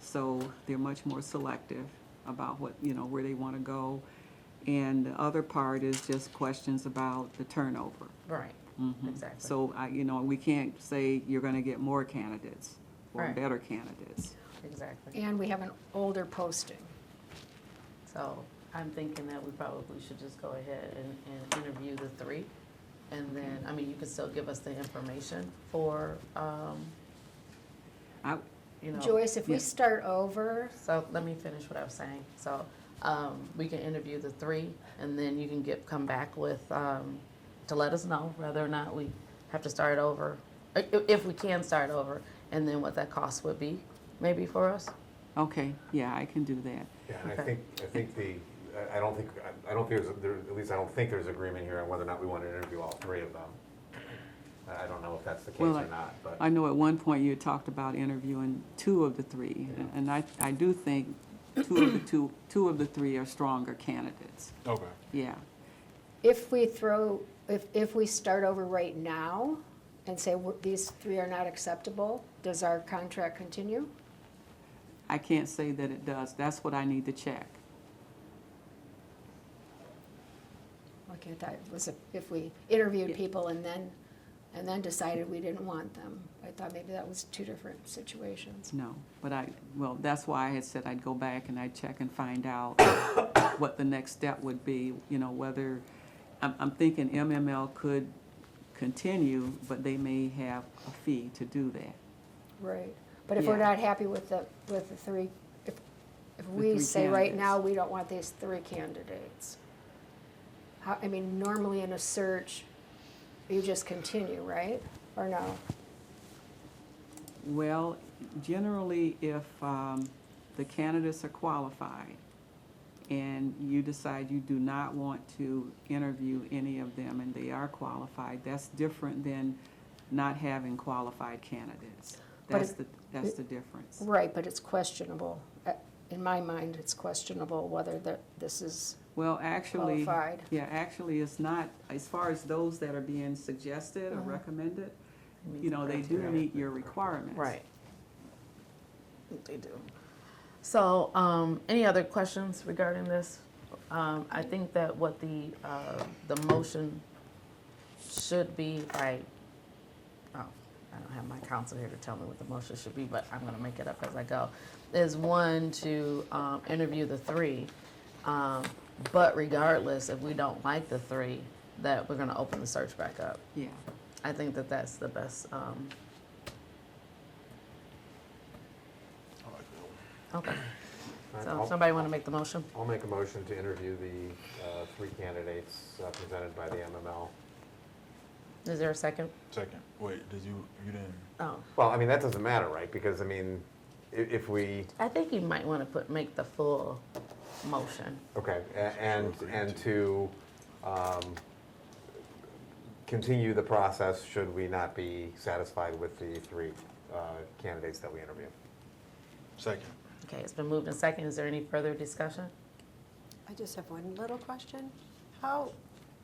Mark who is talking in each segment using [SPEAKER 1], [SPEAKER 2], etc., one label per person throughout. [SPEAKER 1] so they're much more selective about what, you know, where they want to go. And the other part is just questions about the turnover.
[SPEAKER 2] Right,
[SPEAKER 1] Mhm.
[SPEAKER 2] exactly.
[SPEAKER 1] So I, you know, we can't say you're gonna get more candidates or
[SPEAKER 2] Right.
[SPEAKER 1] better candidates.
[SPEAKER 2] Exactly.
[SPEAKER 3] And we have an older posting.
[SPEAKER 2] So I'm thinking that we probably should just go ahead and, and interview the three. And then, I mean, you can still give us the information for, um,
[SPEAKER 1] I,
[SPEAKER 2] you know.
[SPEAKER 3] Joyce, if we
[SPEAKER 1] Yeah.
[SPEAKER 3] start over,
[SPEAKER 2] So let me finish what I was saying. So, um, we can interview the three and then you can get, come back with, um, to let us know whether or not we have to start over. i- i- If we can start over and then what that cost would be maybe for us.
[SPEAKER 1] okay, yeah, I can do that.
[SPEAKER 4] Yeah, and I
[SPEAKER 2] Okay.
[SPEAKER 4] think, I think the, I- I don't think, I- I don't think there's, there- at least I don't think there's agreement here on whether or not we want to interview all three of them. I I don't know if that's the case
[SPEAKER 1] Well,
[SPEAKER 4] or not, but.
[SPEAKER 1] I know at one point you talked about interviewing two of the three,
[SPEAKER 4] Yeah.
[SPEAKER 1] and I, I do think two of the two, two of the three are stronger candidates,
[SPEAKER 4] Okay.
[SPEAKER 1] yeah.
[SPEAKER 3] if we throw, if, if we start over right now and say "We're- these three are not acceptable, does our contract continue?
[SPEAKER 1] I can't say that it does, that's what I need to check.
[SPEAKER 3] Okay, I thought it was if- if we interviewed
[SPEAKER 1] Yeah.
[SPEAKER 3] people and then, and then decided we didn't want them. I thought maybe that was two different situations.
[SPEAKER 1] No, but I, well, that's why I had said I'd go back and I'd check and find out what the next step would be, you know, whether, I'm, I'm thinking MML could continue, but they may have a fee to do that.
[SPEAKER 3] Right. But if we're
[SPEAKER 1] Yeah.
[SPEAKER 3] not happy with the, with the three, if, if
[SPEAKER 1] three
[SPEAKER 3] we say right
[SPEAKER 1] candidates.
[SPEAKER 3] now, we don't want these three candidates. How, I mean, normally in a search, you just continue, right? Or no?
[SPEAKER 1] Well, generally, if um, the candidates are qualified and you decide you do not want to interview any of them and they are qualified, that's different than not having qualified candidates.
[SPEAKER 3] But
[SPEAKER 1] That's
[SPEAKER 3] it-
[SPEAKER 1] the, that's the difference.
[SPEAKER 3] Right, but it's questionable. Uh, In my mind, it's questionable whether that this is
[SPEAKER 1] Well, actually,
[SPEAKER 3] qualified.
[SPEAKER 1] yeah, actually, it's not, as far as those that are being suggested or recommended, you know, they do meet your requirements.
[SPEAKER 2] Right. They do. So, um, any other questions regarding this? Um, I think that what the, uh, the motion should be, I, oh, I don't have my counsel here to tell me what the motion should be, but I'm gonna make it up as I go. Is one to, um, interview the three, um, but regardless, if we don't like the three, that we're gonna open the search back up.
[SPEAKER 1] Yeah,
[SPEAKER 2] I think that that's the best, um, okay. So somebody want to make the motion?
[SPEAKER 4] I'll make a motion to interview the uh, three candidates uh, presented by the MML.
[SPEAKER 2] Is there a second?
[SPEAKER 5] Second, wait, did you, you didn't,
[SPEAKER 2] Oh,
[SPEAKER 4] Well, I mean, that doesn't matter, right? Because, I mean, i- if we,
[SPEAKER 2] I think you might want to put, make the full motion.
[SPEAKER 4] okay, a- and, and to um, continue the process should we not be satisfied with the three uh, candidates that we interview.
[SPEAKER 5] second.
[SPEAKER 2] Okay, it's been moved and second. Is there any further discussion?
[SPEAKER 6] I just have one little question. How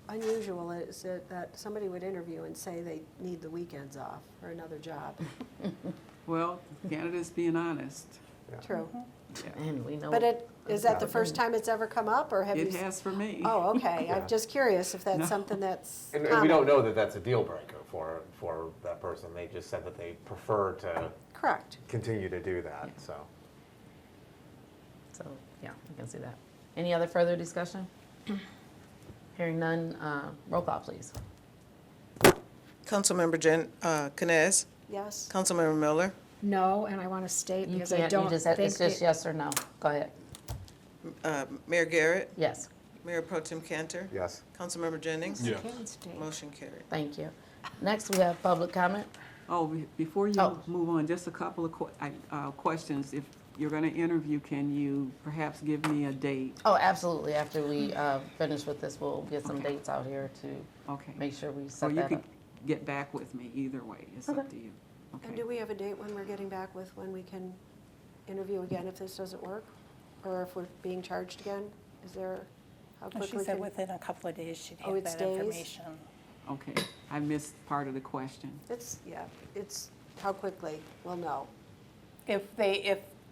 [SPEAKER 6] unusual is it that somebody would interview and say they need the weekends off for another job?
[SPEAKER 1] well, candidates being honest,
[SPEAKER 4] Yeah. Mm-hmm.
[SPEAKER 6] True.
[SPEAKER 1] yeah.
[SPEAKER 2] And we know.
[SPEAKER 6] But it, is that the
[SPEAKER 2] Yeah.
[SPEAKER 6] first time it's ever come up, or have you?
[SPEAKER 1] It
[SPEAKER 6] s-
[SPEAKER 1] has for me.
[SPEAKER 6] Oh, okay.
[SPEAKER 4] Yeah.
[SPEAKER 6] I'm just curious if
[SPEAKER 1] No.
[SPEAKER 6] that's something that's
[SPEAKER 4] And, and we don't
[SPEAKER 6] common.
[SPEAKER 4] know that that's a deal breaker for, for that person. They just said that they prefer to
[SPEAKER 6] Correct.
[SPEAKER 4] continue to do that, so.
[SPEAKER 2] So, yeah, I can see that. Any other further discussion? Hearing none, uh, roll call, please.
[SPEAKER 7] Councilmember Jen, uh, Canes,
[SPEAKER 6] Yes.
[SPEAKER 7] Councilmember Miller,
[SPEAKER 3] No, and I want to state
[SPEAKER 2] You
[SPEAKER 3] because I
[SPEAKER 2] can't, you
[SPEAKER 3] don't
[SPEAKER 2] just,
[SPEAKER 3] think.
[SPEAKER 2] have- it's just
[SPEAKER 3] the-
[SPEAKER 2] yes or no. Go ahead.
[SPEAKER 7] uh, Mayor Garrett,
[SPEAKER 2] Yes,
[SPEAKER 7] Mayor Pro Tem Cantor,
[SPEAKER 4] Yes.
[SPEAKER 7] Councilmember Jennings.
[SPEAKER 5] Yeah.
[SPEAKER 3] Can't state.
[SPEAKER 7] Motion carried.
[SPEAKER 2] thank you. Next, we have public comment.
[SPEAKER 1] Oh, be- before you
[SPEAKER 2] Oh.
[SPEAKER 1] move on, just a couple of que- I- uh, questions. If you're going to interview, can you perhaps give me a date?
[SPEAKER 2] Oh, absolutely. After we, uh, finish with this, we'll get some dates out here to
[SPEAKER 1] Okay.
[SPEAKER 2] make sure we
[SPEAKER 1] Or
[SPEAKER 2] set
[SPEAKER 1] you
[SPEAKER 2] that
[SPEAKER 1] could
[SPEAKER 2] up.
[SPEAKER 1] get back with me, either way, it's up to you.
[SPEAKER 6] And
[SPEAKER 1] Okay.
[SPEAKER 6] do we have a date when we're getting back with when we can interview again if this doesn't work? Or if we're being charged again? Is there,
[SPEAKER 4] Oh,
[SPEAKER 6] how
[SPEAKER 8] Well,
[SPEAKER 6] quickly?
[SPEAKER 8] She said
[SPEAKER 6] can-
[SPEAKER 8] within a couple of days she'd
[SPEAKER 6] Oh,
[SPEAKER 8] have
[SPEAKER 6] it's
[SPEAKER 8] that
[SPEAKER 6] days?
[SPEAKER 8] information.
[SPEAKER 1] Okay, I missed part of the question.
[SPEAKER 6] It's, yeah, it's how quickly, we'll know.
[SPEAKER 8] If they, if